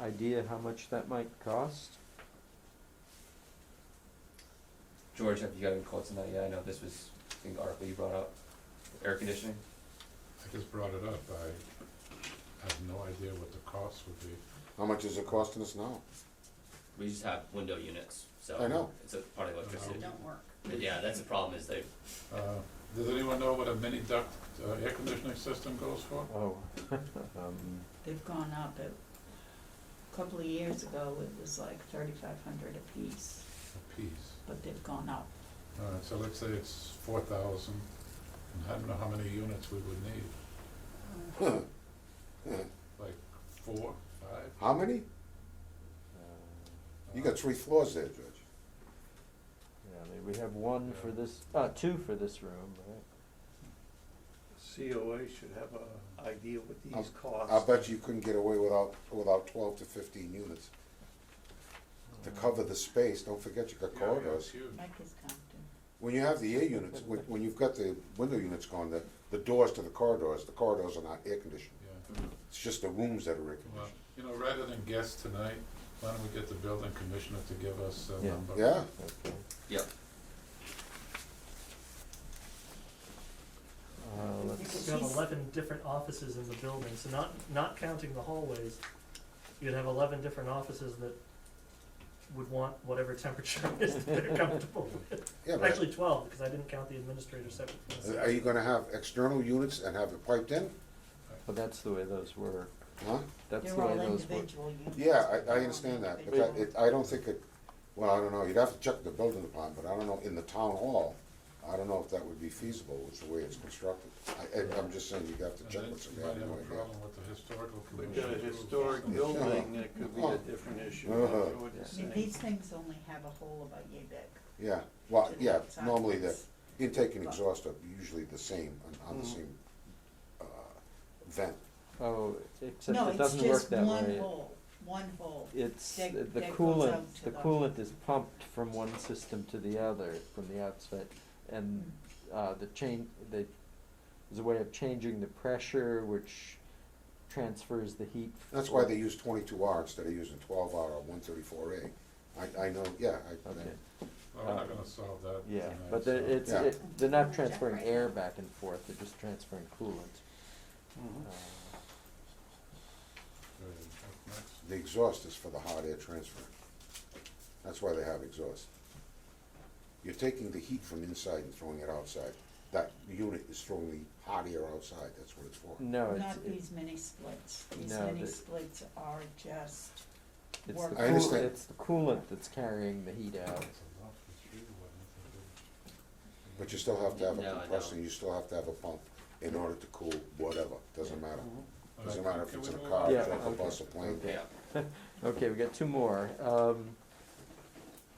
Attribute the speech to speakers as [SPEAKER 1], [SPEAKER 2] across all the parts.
[SPEAKER 1] idea how much that might cost?
[SPEAKER 2] George, have you got any quotes on that yet? I know this was, I think, the article you brought up, air conditioning.
[SPEAKER 3] I just brought it up, I have no idea what the cost would be.
[SPEAKER 4] How much is it costing us now?
[SPEAKER 5] We just have window units, so.
[SPEAKER 4] I know.
[SPEAKER 5] It's a part of electricity.
[SPEAKER 3] They
[SPEAKER 6] don't work.
[SPEAKER 5] But yeah, that's the problem is they,
[SPEAKER 3] Uh, Does anyone know what a mini duct uh, air conditioning system goes for?
[SPEAKER 1] Oh. um,
[SPEAKER 6] They've gone up. It- A couple of years ago, it was like thirty-five hundred apiece,
[SPEAKER 3] A piece.
[SPEAKER 6] but they've gone up.
[SPEAKER 3] All right, so let's say it's four thousand, and I don't know how many units we would need,
[SPEAKER 4] Huh. Huh.
[SPEAKER 3] like four, five?
[SPEAKER 4] How many?
[SPEAKER 1] uh,
[SPEAKER 4] You got three floors there, George.
[SPEAKER 1] Yeah, I mean, we have one for
[SPEAKER 3] Yeah.
[SPEAKER 1] this, uh, two for this room, right?
[SPEAKER 7] COA should have a idea what these costs.
[SPEAKER 4] I bet you couldn't get away without, without twelve to fifteen units. To cover the space, don't forget you got
[SPEAKER 3] Yeah, yeah, it's
[SPEAKER 4] corridors.
[SPEAKER 3] huge.
[SPEAKER 6] Mike is counting.
[SPEAKER 4] When you have the air units, when, when you've got the window units going, the, the doors to the corridors, the corridors are not air conditioned.
[SPEAKER 3] Yeah.
[SPEAKER 4] It's just the rooms that are air
[SPEAKER 3] Well,
[SPEAKER 4] conditioned.
[SPEAKER 3] you know, rather than guess tonight, why don't we get the building commissioner to give us a
[SPEAKER 1] Yeah.
[SPEAKER 3] number?
[SPEAKER 4] Yeah,
[SPEAKER 1] Okay.
[SPEAKER 5] Yep.
[SPEAKER 1] Uh, let's,
[SPEAKER 8] You have eleven different offices in the building, so not, not counting the hallways, you'd have eleven different offices that would want whatever temperature it is that they're comfortable with.
[SPEAKER 4] yeah, but
[SPEAKER 8] Actually twelve, because I didn't count the administrator separate from the
[SPEAKER 4] are
[SPEAKER 8] secretary.
[SPEAKER 4] you gonna have external units and have it piped in?
[SPEAKER 1] but that's the way those were,
[SPEAKER 4] Huh?
[SPEAKER 1] that's
[SPEAKER 6] They're
[SPEAKER 1] the way
[SPEAKER 6] all
[SPEAKER 1] those were.
[SPEAKER 6] individual units.
[SPEAKER 4] Yeah, I,
[SPEAKER 6] They're
[SPEAKER 4] I
[SPEAKER 6] all
[SPEAKER 4] understand that, but
[SPEAKER 6] individual.
[SPEAKER 4] that, it, I don't think it, well, I don't know, you'd have to check the building department, but I don't know, in the town hall, I don't know if that would be feasible, with the way it's constructed. I, I- I'm just saying, you'd have to
[SPEAKER 3] And
[SPEAKER 4] check
[SPEAKER 3] then
[SPEAKER 4] what's
[SPEAKER 3] you
[SPEAKER 4] available.
[SPEAKER 3] might have a problem with the historical
[SPEAKER 7] We've
[SPEAKER 3] commission.
[SPEAKER 7] got a
[SPEAKER 3] too.
[SPEAKER 7] historic building, it could be a different issue.
[SPEAKER 4] Uh-huh.
[SPEAKER 7] I wouldn't
[SPEAKER 6] See,
[SPEAKER 7] say.
[SPEAKER 6] these things only have a hole about yay big.
[SPEAKER 4] Yeah, well,
[SPEAKER 6] to the
[SPEAKER 4] Uh, yeah,
[SPEAKER 6] sides.
[SPEAKER 4] normally the intake and exhaust are usually the same, on, on the
[SPEAKER 7] Mhm.
[SPEAKER 4] same, uh, vent.
[SPEAKER 1] Oh, except
[SPEAKER 6] No,
[SPEAKER 1] it
[SPEAKER 6] it's
[SPEAKER 1] doesn't work
[SPEAKER 6] just
[SPEAKER 1] that
[SPEAKER 6] one
[SPEAKER 1] way.
[SPEAKER 6] hole, one hole.
[SPEAKER 1] It's,
[SPEAKER 6] that-
[SPEAKER 1] the
[SPEAKER 6] that goes
[SPEAKER 1] coolant,
[SPEAKER 6] out to
[SPEAKER 1] the
[SPEAKER 6] the-
[SPEAKER 1] coolant is pumped from one system to the other, from the outside. And,
[SPEAKER 6] Mm.
[SPEAKER 1] uh, the chain, they, there's a way of changing the pressure which transfers the heat.
[SPEAKER 4] That's why
[SPEAKER 1] for-
[SPEAKER 4] they use twenty-two R instead of using twelve R or one thirty-four A. I, I know, yeah, I,
[SPEAKER 1] Okay,
[SPEAKER 3] Well, we're not gonna solve that
[SPEAKER 1] yeah,
[SPEAKER 3] tonight,
[SPEAKER 1] but they're,
[SPEAKER 3] so-
[SPEAKER 1] it's,
[SPEAKER 4] Yeah.
[SPEAKER 1] it, they're not
[SPEAKER 6] Jack
[SPEAKER 1] transferring
[SPEAKER 6] right
[SPEAKER 1] air
[SPEAKER 6] now.
[SPEAKER 1] back and forth, they're just transferring coolant.
[SPEAKER 7] Mhm.
[SPEAKER 1] Uh,
[SPEAKER 3] Good. Up next.
[SPEAKER 4] the exhaust is for the hot air transfer. That's why they have exhaust. You're taking the heat from inside and throwing it outside. That unit is throwing the hot air outside, that's what it's for.
[SPEAKER 1] No, it's,
[SPEAKER 6] Not
[SPEAKER 1] it-
[SPEAKER 6] these mini splits. These
[SPEAKER 1] No,
[SPEAKER 6] mini
[SPEAKER 1] the-
[SPEAKER 6] splits are just,
[SPEAKER 1] it's the
[SPEAKER 6] work. I
[SPEAKER 1] coolant,
[SPEAKER 4] understand.
[SPEAKER 1] it's the coolant that's carrying the heat out.
[SPEAKER 3] It's a lot for three, what we can do.
[SPEAKER 4] But you still have to have
[SPEAKER 5] No, I
[SPEAKER 4] a
[SPEAKER 5] know.
[SPEAKER 4] compressor, you still have to have a pump in order to cool whatever, doesn't matter.
[SPEAKER 3] All
[SPEAKER 4] Doesn't
[SPEAKER 3] right,
[SPEAKER 4] matter if
[SPEAKER 3] can
[SPEAKER 4] it's
[SPEAKER 3] we
[SPEAKER 4] in a
[SPEAKER 3] move
[SPEAKER 4] car,
[SPEAKER 3] on?
[SPEAKER 1] Yeah,
[SPEAKER 4] a truck, a
[SPEAKER 1] okay,
[SPEAKER 4] bus, a plane.
[SPEAKER 1] okay.
[SPEAKER 5] yeah.
[SPEAKER 1] Okay, we got two more. Um,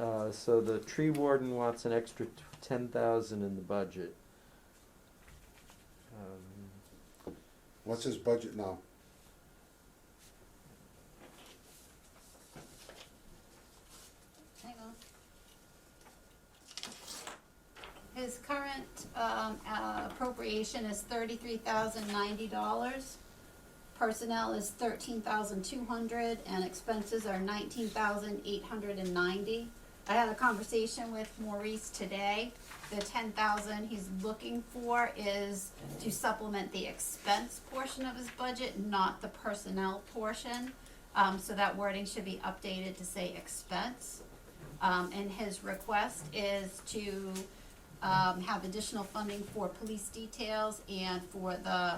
[SPEAKER 1] uh, so the tree warden wants an extra t- ten thousand in the budget. Um,
[SPEAKER 4] What's his budget now?
[SPEAKER 9] Hang on. His current, um, uh, appropriation is thirty-three thousand ninety dollars. Personnel is thirteen thousand two hundred, and expenses are nineteen thousand eight hundred and ninety. I had a conversation with Maurice today. The ten thousand he's looking for is to supplement the expense portion of his budget, not the personnel portion. Um, so that wording should be updated to say expense. Um, and his request is to, um, have additional funding for police details and for the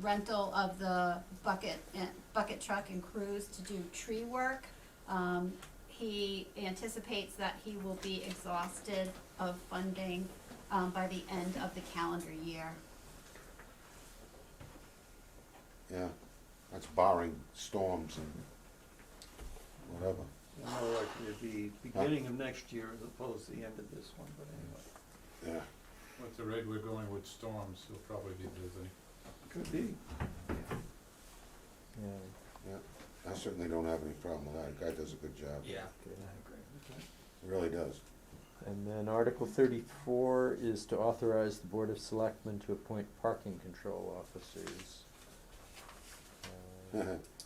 [SPEAKER 9] rental of the bucket, and bucket truck and crews to do tree work. Um, he anticipates that he will be exhausted of funding, um, by the end of the calendar year.
[SPEAKER 4] Yeah, that's barring storms and whatever.
[SPEAKER 7] More likely to be beginning of next year as opposed to the end of this one, but anyway,
[SPEAKER 4] Yeah,
[SPEAKER 3] With the rate we're going with storms, he'll probably be busy.
[SPEAKER 7] could be.
[SPEAKER 1] yeah,
[SPEAKER 4] I certainly don't have any problem with that. The guy does a good job.
[SPEAKER 5] Yeah.
[SPEAKER 1] okay.
[SPEAKER 4] Really does.
[SPEAKER 1] And then Article thirty-four is to authorize the Board of
[SPEAKER 4] Uh-huh.
[SPEAKER 1] Selectmen to appoint parking control officers. Uh,